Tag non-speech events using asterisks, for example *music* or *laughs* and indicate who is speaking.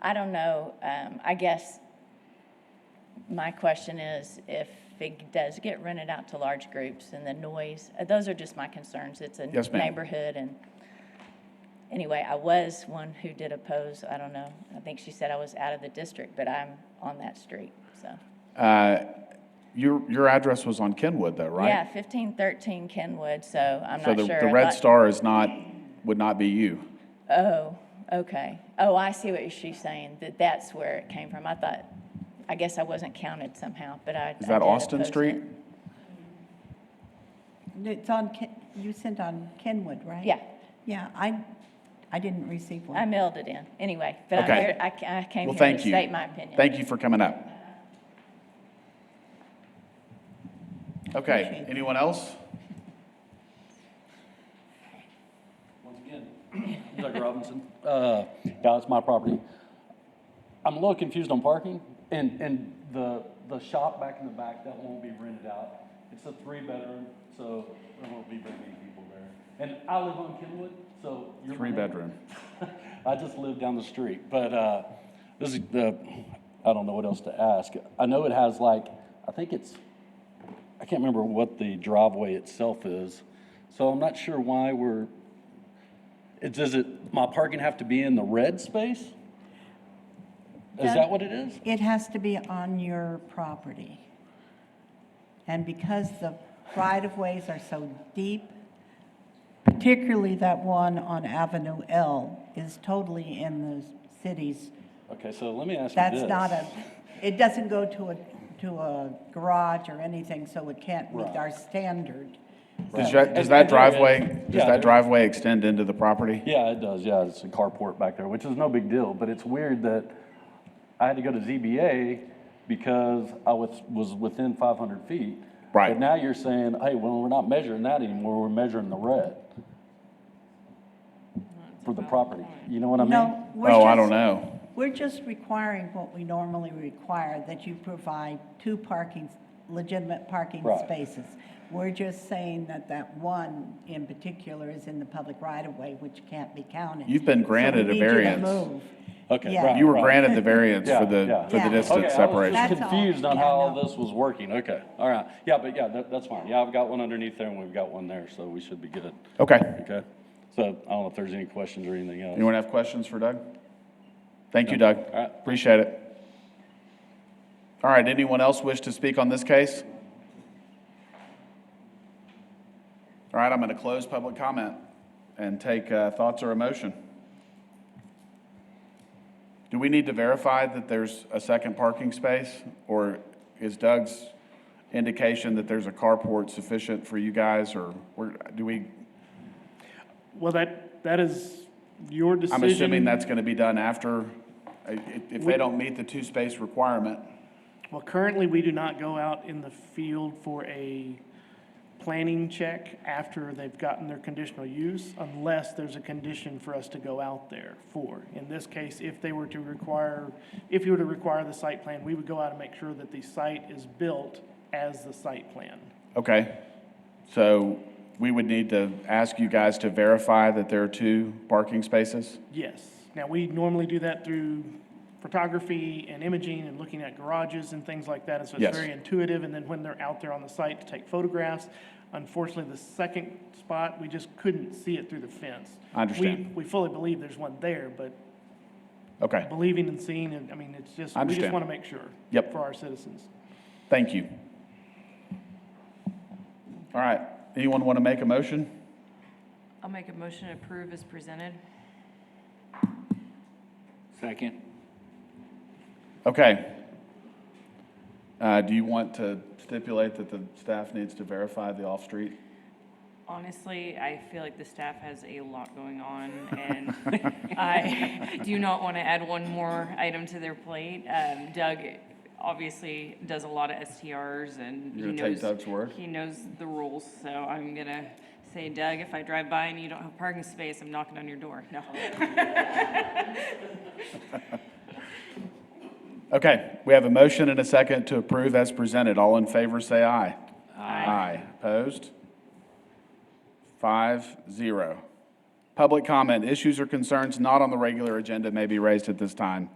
Speaker 1: I don't know, um, I guess my question is if it does get rented out to large groups and the noise, uh, those are just my concerns. It's a
Speaker 2: Yes, ma'am.
Speaker 1: neighborhood and, anyway, I was one who did oppose, I don't know. I think she said I was out of the district, but I'm on that street, so.
Speaker 2: Uh, Your, your address was on Kenwood though, right?
Speaker 1: Yeah, fifteen thirteen Kenwood, so I'm
Speaker 2: So
Speaker 1: not
Speaker 2: the,
Speaker 1: sure.
Speaker 2: the
Speaker 1: I'd
Speaker 2: red
Speaker 1: like-
Speaker 2: star is not, would not be you.
Speaker 1: Oh, okay. Oh, I see what she's saying, that that's where it came from. I thought, I guess I wasn't counted somehow, but I.
Speaker 2: Is
Speaker 1: I
Speaker 2: that
Speaker 1: did
Speaker 2: Austin
Speaker 1: oppose
Speaker 2: Street?
Speaker 1: it.
Speaker 3: It's on, Ken- you sent on Kenwood, right?
Speaker 1: Yeah.
Speaker 3: Yeah, I, I didn't receive
Speaker 1: I
Speaker 3: one.
Speaker 1: mailed it in, anyway, but I'm
Speaker 2: Okay.
Speaker 1: here, I ca- I came
Speaker 2: Well,
Speaker 1: here to
Speaker 2: thank you.
Speaker 1: state my opinion.
Speaker 2: Thank you for coming up. Okay,
Speaker 3: Appreciate it.
Speaker 2: anyone else?
Speaker 4: Once again, Doug Robinson. Uh, Yeah, it's my property. I'm a little confused on parking and, and the, the shop back in the back, that won't be rented out. It's a three bedroom, so there won't be very many people there. And I live on Kenwood, so. you're my
Speaker 2: Three
Speaker 4: neighbor.
Speaker 2: bedroom.
Speaker 4: *laughs* I just live down the street, but uh, this is the, I don't know what else to ask. I know it has like, I think it's, I can't remember what the driveway itself is, so I'm not sure why we're, it, does it, my parking have to be in the red space? Is that what it is?
Speaker 3: It has to be on your property. And because the right-of-ways are so deep, particularly that one on Avenue L is totally in the city's,
Speaker 4: Okay, so let me ask you this.
Speaker 3: that's not a, it doesn't go to a, to a garage or anything, so it can't meet
Speaker 4: Right.
Speaker 3: our standard.
Speaker 2: Does
Speaker 4: Right.
Speaker 2: that, does that
Speaker 4: And- and there is-
Speaker 2: driveway,
Speaker 4: yeah,
Speaker 2: does that
Speaker 4: there-
Speaker 2: driveway extend into the property?
Speaker 4: Yeah, it does. Yeah, it's a carport back there, which is no big deal, but it's weird that I had to go to ZBA because I was, was within five hundred feet.
Speaker 2: Right.
Speaker 4: But now you're saying, hey, well, we're not measuring that anymore, we're measuring the red for the property. You know what I mean?
Speaker 3: No, we're
Speaker 2: Oh, I
Speaker 3: just-
Speaker 2: don't know.
Speaker 3: We're just requiring what we normally require, that you provide two parking, legitimate parking
Speaker 4: Right.
Speaker 3: spaces. We're just saying that that one in particular is in the public right-of-way, which can't be counted.
Speaker 2: You've been
Speaker 3: So we
Speaker 2: granted a
Speaker 3: need you to
Speaker 2: variance.
Speaker 3: move.
Speaker 4: Okay,
Speaker 3: Yeah.
Speaker 4: right.
Speaker 2: You were granted the variance
Speaker 4: *laughs* Yeah,
Speaker 2: for the,
Speaker 4: yeah.
Speaker 2: for the
Speaker 3: Yeah.
Speaker 4: Okay,
Speaker 2: distance
Speaker 4: I
Speaker 2: separation.
Speaker 4: was just
Speaker 3: That's all.
Speaker 4: confused on
Speaker 3: Yeah,
Speaker 4: how all
Speaker 3: no.
Speaker 4: this was working. Okay, all right. Yeah, but yeah, that, that's fine. Yeah, I've got one underneath there and we've got one there, so we should be good.
Speaker 2: Okay.
Speaker 4: Okay? So I don't know if there's any questions or anything else.
Speaker 2: Anyone have questions for Doug? Thank you, Doug.
Speaker 4: All right.
Speaker 2: Appreciate it. All right, anyone else wish to speak on this case? All right, I'm going to close public comment and take uh, thoughts or a motion. Do we need to verify that there's a second parking space? Or is Doug's indication that there's a carport sufficient for you guys? Or where- do we,
Speaker 5: Well, that, that is your decision.
Speaker 2: I'm assuming that's going to be done after, i- i- if they don't meet the two-space requirement.
Speaker 5: Well, currently, we do not go out in the field for a planning check after they've gotten their conditional use unless there's a condition for us to go out there for. In this case, if they were to require, if you were to require the site plan, we would go out and make sure that the site is built as the site plan.
Speaker 2: Okay. So we would need to ask you guys to verify that there are two parking spaces?
Speaker 5: Yes. Now, we normally do that through photography and imaging and looking at garages and things like that. And so
Speaker 2: Yes.
Speaker 5: it's very intuitive. And then when they're out there on the site to take photographs, unfortunately, the second spot, we just couldn't see it through the fence.
Speaker 2: I understand.
Speaker 5: We, we fully believe there's one there, but
Speaker 2: Okay,
Speaker 5: believing and seeing, and I mean, it's just,
Speaker 2: I
Speaker 5: we just
Speaker 2: understand.
Speaker 5: want to make sure.
Speaker 2: Yep.
Speaker 5: For our citizens.
Speaker 2: thank you. All right, anyone want to make a motion?
Speaker 6: I'll make a motion to approve as presented.
Speaker 7: Second.
Speaker 2: Okay. Uh, Do you want to stipulate that the staff needs to verify the off-street?
Speaker 6: Honestly, I feel like the staff has a lot going on, *laughs* and I do not want to add one more item to their plate. Um, Doug obviously does a lot of STRs, and he
Speaker 2: You're gonna take
Speaker 6: knows.
Speaker 2: Doug's word?
Speaker 6: He knows the rules, so I'm gonna say, Doug, if I drive by and you don't have parking space, I'm knocking on your door. No.
Speaker 2: Okay, we have a motion and a second to approve as presented. All in favor, say aye. Aye. Opposed? Five, zero. Public comment, issues or concerns not on the regular agenda may be raised at this time.